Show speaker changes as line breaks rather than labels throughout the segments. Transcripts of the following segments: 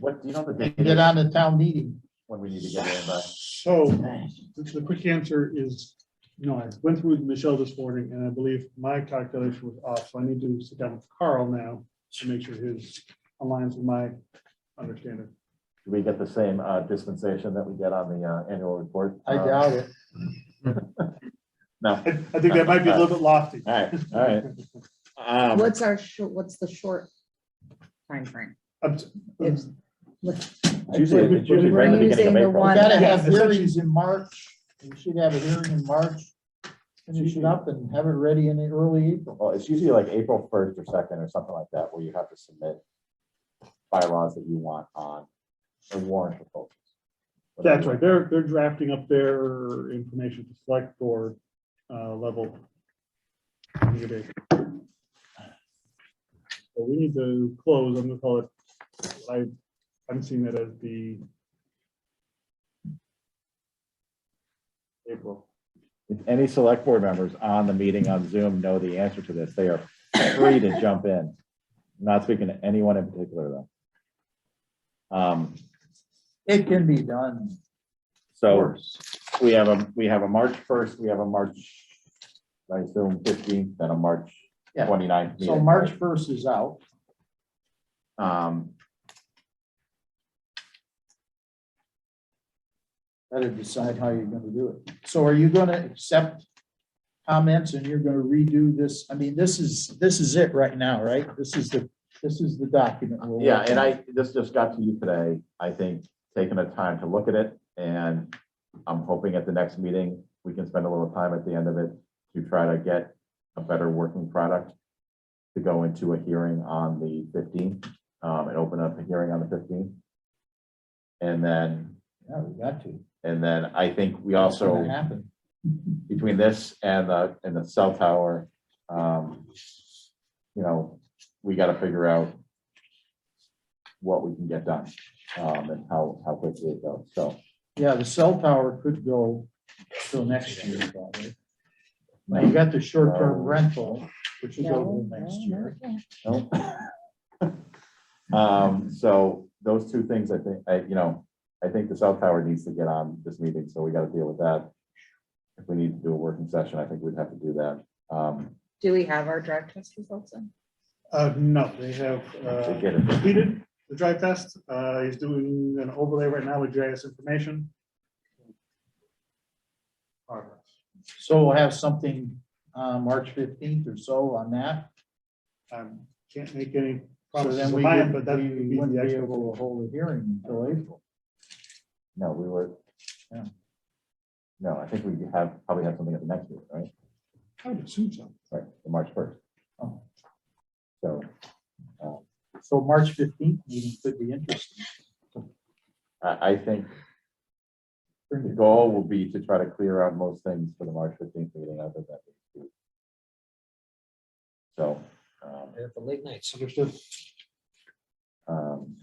What, do you know the
and
date
get
is
on the town meeting.
when we need to get in, uh, but
So the quick answer is, no, I went through with Michelle this morning and I believe my calculation was off. So I need to sit down with Carl now to make sure his aligns with my understanding.
do we get the same uh, dispensation that we get on the uh, annual report?
I
Uh,
doubt it.
No,
I, I think that might be a little bit lofty.
all right, all right. Um,
What's our, short? what's the short timeframe?
Up to-
It's- let's-
It's usually, it's usually right at the beginning of
We're using the
April.
We
one-
gotta
Yeah,
have
essentially-
hearings in March. We should have a hearing in March. Finish it up and have it ready in early April.
Well, it's usually like April first or second or something like that, where you have to submit bylaws that you want on or warrant proposals.
That's right. They're, they're drafting up their information to select or uh, level. community. So we need to close, I'm gonna call it, I, I'm seeing that as the April.
If any select board members on the meeting on Zoom know the answer to this, they are free to jump in. I'm Not speaking to anyone in particular, though. Um,
It can be done.
so we have a, we have a March first, we have a March, I assume fifteenth, then a March
Yeah.
29th.
So
meeting.
March first is out.
Um,
Better decide how you're gonna do it. So are you gonna accept comments and you're gonna redo this? I mean, this is, this is it right now, right? This is the, this is the document. we're
Yeah,
working
and
on.
I, this just got to you today, I think, taking the time to look at it, and I'm hoping at the next meeting, we can spend a little time at the end of it to try to get a better working product to go into a hearing on the fifteenth, um, and open up a hearing on the fifteenth. And then,
Yeah, we got to.
and then I think we
It's gonna
also,
Happen.
between this and the, and the cell tower, um, you know, we gotta figure out what we can get done, um, and how, how quickly it goes, so.
Yeah, the cell tower could go till next year probably. Now you got the short-term rental, which is over
No,
next
no,
year.
no, no.
no? Um, so those two things, I think, I, you know, I think the cell tower needs to get on this meeting, so we gotta deal with that. If we need to do a working session, I think we'd have to do that, um,
Do we have our drug test results in?
Uh, no, they have
to
uh,
get it.
completed the drive test. Uh, he's doing an overlay right now with GIS information. Progress.
So we'll have something, uh, March fifteenth or so on that.
I can't make any
So
promises
then
of
we
mine,
wouldn't
but that would
we
be
wouldn't
the
be
actual.
able to hold a hearing until April.
No, we were.
Yeah.
No, I think we have, probably have something at the next meeting, right?
I would assume so.
Right, the March first.
Oh.
So
So March fifteenth meeting could be interesting.
I, I think the goal will be to try to clear out most things for the March fifteenth meeting other than. the 18th. So, um,
There for late nights.
Understood.
um,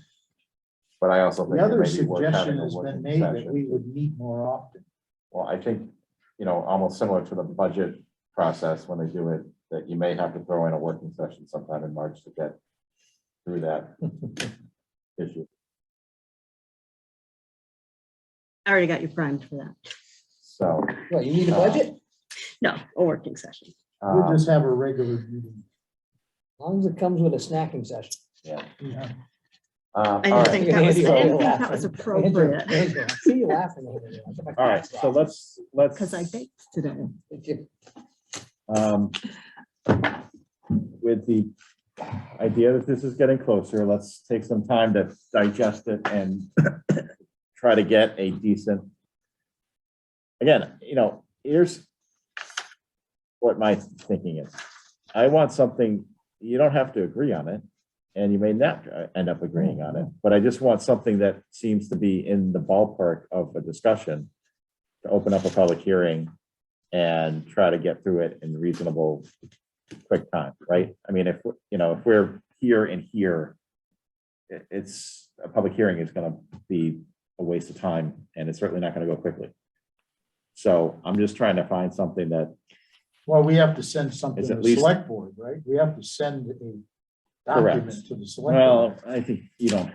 but I also think.
The
it
other
may be worth having
suggestion
a
has been
working
made that
session.
we would meet more often.
Well, I think, you know, almost similar to the budget process when they do it, that you may have to throw in a working session sometime in March to get through that issue.
I already got you primed for that.
So.
What, you need a
Uh,
budget? As
No, a working session.
We'll
um,
just have a regular meeting.
long as it comes with a snacking session.
uh,
I
all
didn't
right.
think that was,
Andy,
I didn't
you're
think that was
laughing.
appropriate
Andrew, I See you laughing. over there. I'll get my
All right,
glasses
so
off.
let's, let's.
because I baked today.
If you-
um, With the idea that this is getting closer, let's take some time to digest it and try to get a decent. Again, you know, here's what my thinking is. I want something, you don't have to agree on it, and you may not uh, end up agreeing on it, but I just want something that seems to be in the ballpark of a discussion to open up a public hearing and try to get through it in reasonable, quick time, right? I mean, if, we're- you know, if we're here and here, it- it's, a public hearing is gonna be a waste of time, and it's certainly not gonna go quickly. So I'm just trying to find something that,
Well, we have to send something
It's
to
at
the
least-
select board, right? We have to send a
Correct.
document to the select. board.
well, I think you don't